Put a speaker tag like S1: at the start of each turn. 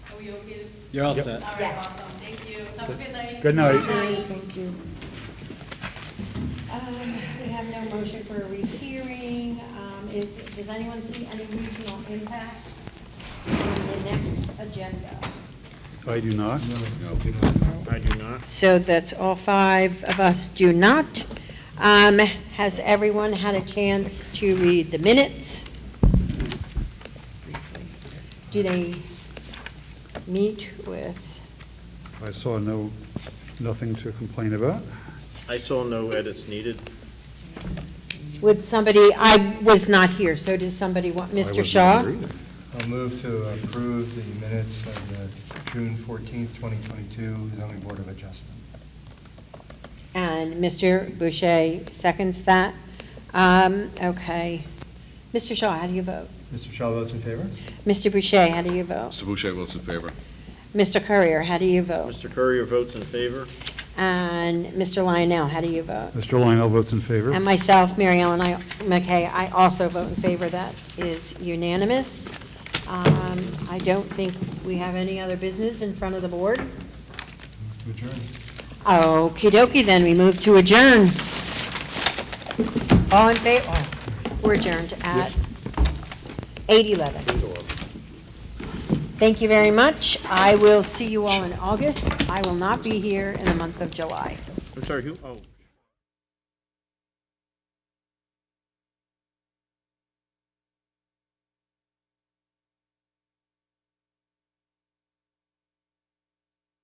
S1: we okay to?
S2: You're all
S3: Yep.
S2: set.
S1: All right,
S4: Yeah.
S1: awesome, thank you. Have a good night.
S3: Good night.
S4: Thank you. Um, We have no motion for a rehearing. Um, Is, does anyone see any regional impact on the next agenda?
S3: I do not.
S5: I do not.
S4: So that's all five of us do not. Um, Has everyone had a chance to read the minutes? Do they meet with,
S3: I saw no, nothing to complain about.
S5: I saw no edits needed.
S4: would somebody, I was not here, so does somebody want,
S3: I
S4: Mr.
S3: wasn't
S4: Shaw?
S3: here either.
S6: I'll move to approve the minutes of the June 14th, 2022 zoning board of adjustment.
S4: And Mr. Boucher seconds that. Um, Okay. Mr. Shaw, how do you vote?
S6: Mr. Shaw votes in favor?
S4: Mr. Boucher, how do you vote?
S7: Mr. Boucher votes in favor.
S4: Mr. Courier, how do you vote?
S5: Mr. Courier votes in favor.
S4: And Mr. Lionel, how do you vote?
S3: Mr. Lionel votes in favor.
S4: And myself, Mary Ellen I- McKay, I also vote in favor. That is unanimous. Um, I don't think we have any other business in front of the board.
S6: Move to adjourn.
S4: Okey dokey, then, we move to adjourn. All in favor, we're adjourned at 8:11. Thank you very much. I will see you all in August. I will not be here in the month of July.
S5: I'm sorry, who, oh.